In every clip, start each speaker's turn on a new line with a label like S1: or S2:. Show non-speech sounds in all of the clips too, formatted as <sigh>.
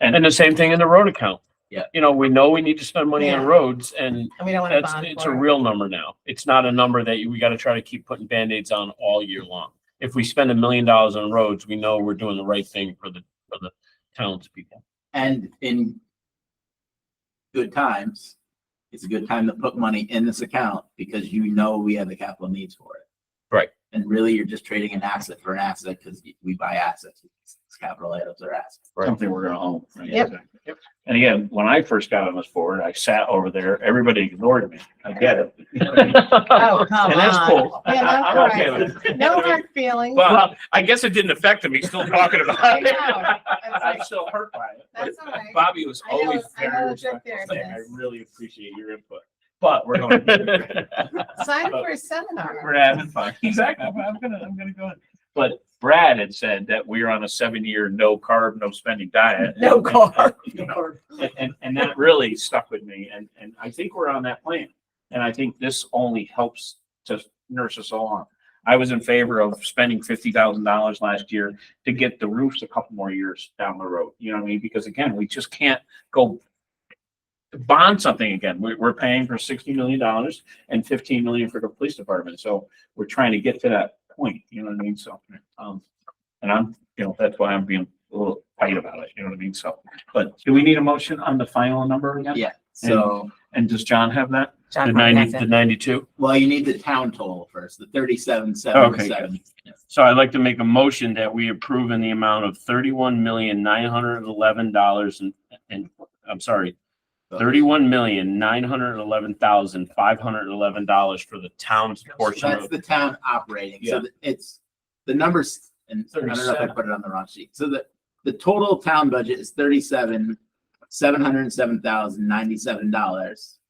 S1: And the same thing in the road account.
S2: Yeah.
S1: You know, we know we need to spend money on
S3: Yeah.
S1: roads and
S3: And we don't want to
S1: that's,
S3: bond
S1: it's a
S3: for it.
S1: real number now. It's not a number that you- we gotta try to keep putting Band-Aids on all year long. If we spend a million dollars on roads, we know we're doing the right thing for the, for the townspeople.
S2: And in good times, it's a good time to put money in this account because you know we have the capital needs for it.
S1: Right.
S2: And really, you're just trading an asset for an asset because we buy assets. It's Capital items are assets.
S1: Right.
S4: something we're gonna own. right?
S3: Yep.
S4: Exactly.
S1: Yep.
S4: And again, when I first got on this board, I sat over there, everybody ignored me.
S1: <laughs>
S4: I get it. And
S3: Oh, come
S4: that's
S3: on.
S4: cool.
S3: Yeah, that's
S4: I'm
S3: all
S4: okay
S3: right.
S4: with it.
S3: No hard feelings.
S4: Well, I guess it didn't affect him. He's still talking
S3: I
S4: about
S3: know.
S4: it.
S3: It's like,
S4: I'm still hurt by it. <laughs> but
S3: That's all right.
S4: Bobby was
S3: I know-
S4: always
S3: I know
S4: very
S3: it's up
S4: respectful.
S3: there,
S4: saying, I
S3: yes.
S4: really appreciate your input, but we're going, <laughs>
S3: Sign up for a seminar.
S4: we're having fun. Exactly. I'm I'm gonna, I'm gonna go. in. But Brad had said that we're on a seven-year no carb, no spending diet.
S2: No car.
S4: And, and, and that really stuck with me. And, and I think we're on that plan. And I think this only helps to nurse us along. I was in favor of spending fifty thousand dollars last year to get the roofs a couple more years down the road. You know what I mean? Because again, we just can't go bond something again. We're, we're paying for sixty million dollars and fifteen million for the police department. So we're trying to get to that point, you know what I mean? So, um, and I'm, you know, that's why I'm being a little tight about it, you know what I mean? So, but do we need a motion on the final number again?
S2: Yeah. So.
S4: And does John have that?
S1: The ninety, the ninety-two.
S2: Well, you need the town total first, the thirty-seven, seven, seven.
S1: So I'd like to make a motion that we approve in the amount of thirty-one million, nine hundred and eleven dollars and, and, I'm sorry, thirty-one million, nine hundred and eleven thousand, five hundred and eleven dollars for the town's portion
S2: That's
S1: of.
S2: the town operating, so that it's, the numbers, and I don't know if I
S4: 37.
S2: put it on the wrong sheet, so the, the total town budget is thirty-seven, seven hundred and seven thousand, ninety-seven dollars.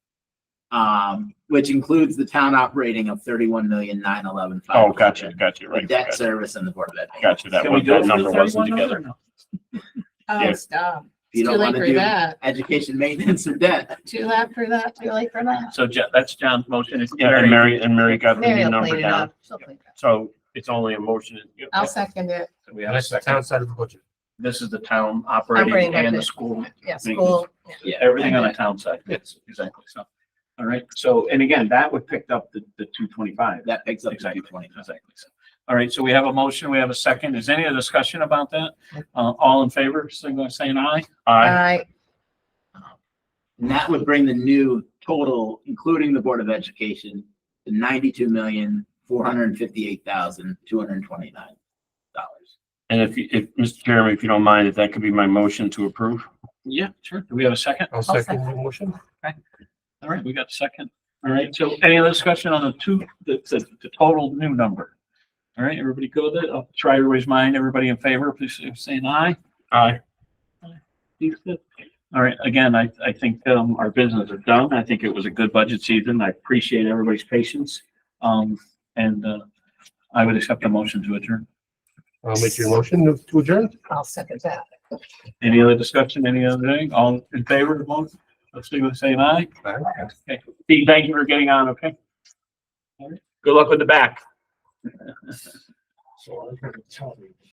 S2: Um, which includes the town operating of thirty-one million, nine eleven five.
S1: Oh, gotcha, gotcha,
S2: The
S1: right.
S2: debt
S1: Gotcha,
S2: service and the board of ed.
S1: Gotcha, that
S4: Can we
S1: one,
S4: do it
S1: that
S4: for
S1: number
S4: the
S1: wasn't
S4: 31
S1: together.
S4: number or
S3: Oh,
S1: Yeah.
S2: If
S3: stop.
S2: you
S3: It's
S2: don't want
S3: too
S2: to
S3: late for
S2: do
S3: that.
S2: education maintenance or debt,
S3: Too late for that. Too late for
S4: no?
S3: that.
S4: So Jo- that's John's motion. It's
S1: Yeah, and Mary, and Mary got
S3: Mary
S1: the
S3: will
S1: number
S3: clean it
S1: down.
S3: up. She'll clean it up.
S1: So it's only a motion.
S3: I'll second it.
S4: We have a second.
S5: side of the budget.
S4: This is the town
S3: Operating
S4: operating and the
S3: budget.
S4: school.
S3: Yeah,
S4: Thank you.
S3: school. yeah.
S2: yeah.
S4: Everything on the town side. Yes. Exactly. So, all right. So, and again, that would pick up the, the two twenty-five.
S2: That picks up to
S4: Exactly,
S2: two twenty.
S4: exactly. So, All right, so we have a motion, we have a second. Is any other discussion about that? Uh, all in favor, signal by saying aye?
S3: All
S1: Aye.
S3: right.
S2: And that would bring the new total, including the Board of Education, to ninety-two million, four hundred and fifty-eight thousand, two hundred and twenty-nine dollars.
S1: And if, you- if, Mr. Chairman, if you don't mind, if that could be my motion to approve.
S4: Yeah, sure. Do we have a second?
S5: I'll
S3: second.
S5: second the motion.
S4: All right, we got a second. All right, so any other discussion on the two, the, the, the total new number? All right, everybody go with it. I'll try everybody's mind. Everybody in favor, please say- say an aye.
S1: Aye.
S4: All right, again, I, I think, um, our business is done. I think it was a good budget season. I appreciate everybody's patience. Um, and, uh, I would accept a motion to adjourn.
S5: I'll make your motion to adjourn.
S3: I'll second that.
S4: Any other discussion, any other thing? All in favor of the motion? Let's see what's saying aye. Okay. Steve, thank you for getting on, okay? <laughs> All right. Good luck with the back.
S5: So I'm gonna tell you.